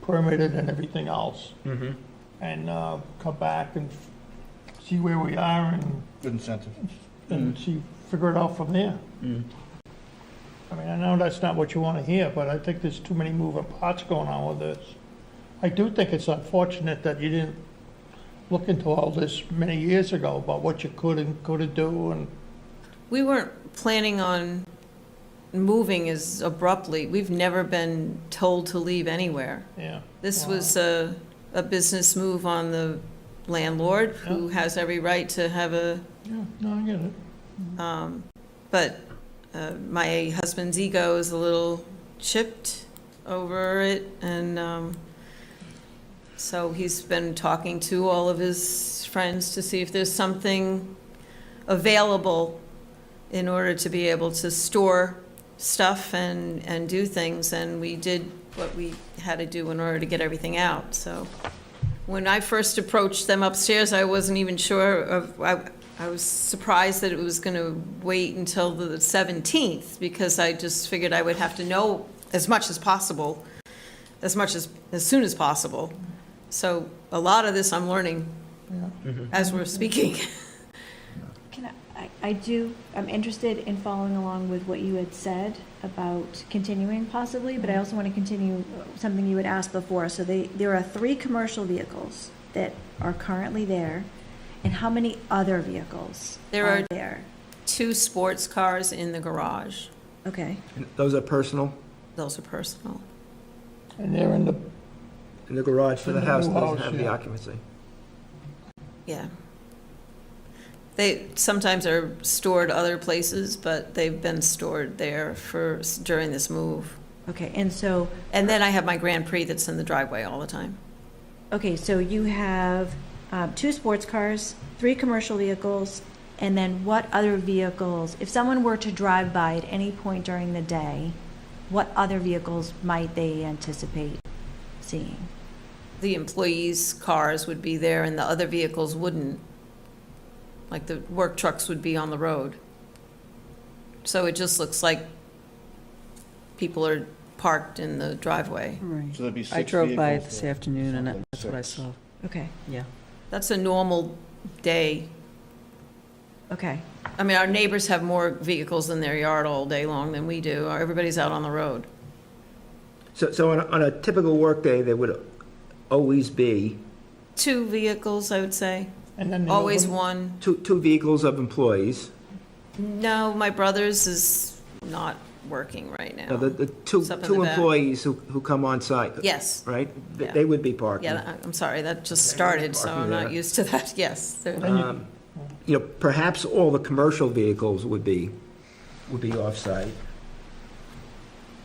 permitted and everything else, Mm-hmm. and uh, come back and see where we are and, Good incentive. and see, figure it out from there. Mm. I mean, I know that's not what you want to hear, but I think there's too many moving parts going on with this. I do think it's unfortunate that you didn't look into all this many years ago about what you could and couldn't do and We weren't planning on moving as abruptly. We've never been told to leave anywhere. Yeah, This was a, a business move on the landlord, who has every right to have a, yeah, no, I get it. but uh, my husband's ego is a little chipped over it, and um, so he's been talking to all of his friends to see if there's something available in order to be able to store stuff and, and do things, and we did what we had to do in order to get everything out, so. When I first approached them upstairs, I wasn't even sure of, I, I was surprised that it was gonna wait until the seventeenth, because I just figured I would have to know as much as possible, as much as, as soon as possible. So a lot of this I'm learning as we're speaking. Can I, I- I do, I'm interested in following along with what you had said about continuing possibly, Mm-hmm. but I also want to continue uh, something you had asked before. So they, there are three commercial vehicles that are currently there, and how many other vehicles There are are- there? Two sports cars in the garage, Okay, And those are personal those are personal. And they're in the, in the garage for the In the house that house, doesn't have the yeah. occupancy. Yeah. They sometimes are stored other places, but they've been stored there for, during this move. okay, and so, And then I have my Grand Prix that's in the driveway all the time. okay, so you have uh, two sports cars, three commercial vehicles, and then what other vehicles? If someone were to drive by at any point during the day, what other vehicles might they anticipate seeing? The employees' cars would be there and the other vehicles wouldn't. Like the work trucks would be on the road. So it just looks like people are parked in the driveway. Right. So that'd be six I drove by it vehicles this there. afternoon, and Something that- that's what I six. saw, Okay, yeah. That's a normal day. okay. I mean, our neighbors have more vehicles in their yard all day long than we do. Everybody's out on the road. So, so on a, on a typical workday, there would always be Two vehicles, I would say. and then the. Always open- one. two, two vehicles of employees. No, my brother's is not working right Now, the, now. the two, It's up in two the back. employees who, who come on site, Yes. right? They- Yeah. They would be parking. Yeah, I- I'm sorry, that just started, so I'm not used to that, yes. there- Then you- Um, You know, perhaps all the commercial vehicles would be, would be off-site.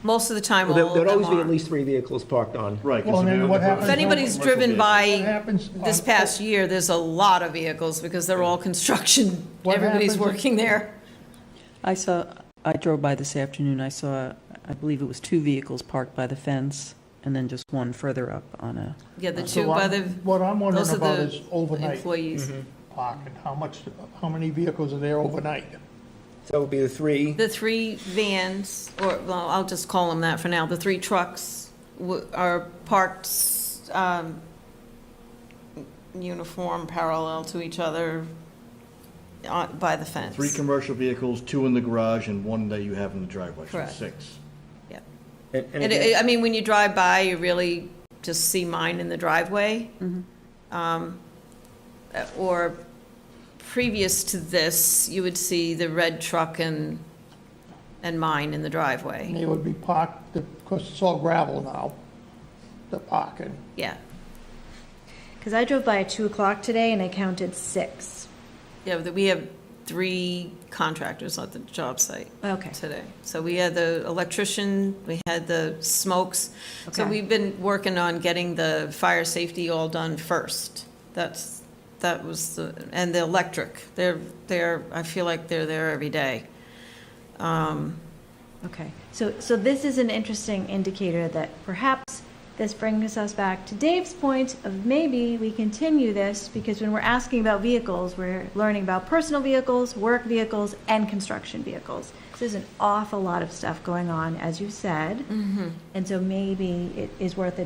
Most of the time, Well, all there- of There'd them always be at are. least three vehicles parked on. Right. 'cause Well, if then you're what on the happens- If first- anybody's driven What by happens? on- this past year, there's a lot of vehicles because they're all construction. What Everybody's happens if- working there. I saw, I drove by this afternoon, I saw, I believe it was two vehicles parked by the fence, and then just one further up on a, Yeah, the So two by I'm- the What I'm wondering those are about the is overnight employees. parking, how much, how many vehicles are there overnight? So it would be the three. The three vans, or, well, I'll just call them that for now, the three trucks w- are parked um, uniform, parallel to each other on- by the fence. Three commercial vehicles, two in the garage and one that you have in the driveway, so Correct. six. Yeah. And- and And again- it- I mean, when you drive by, you really just see mine in the driveway. Um, uh, Or previous to this, you would see the red truck and, and mine in the And driveway. they would be parked, because it's all gravel now, the parking. Yeah. Because I drove by at two o'clock today and I counted six. Yeah, but we have three contractors at the job site Okay. today. So we had the electrician, we had the smokes. So Okay. we've been working on getting the fire safety all done first. That's, that was, the and the electric. They're, they're, I feel like they're there every day. Okay. So, so this is an interesting indicator that perhaps this brings us back to Dave's point of maybe we continue this because when we're asking about vehicles, we're learning about personal vehicles, work vehicles, and construction vehicles. So there's an awful lot of stuff going on, as you said. And so maybe it is worth a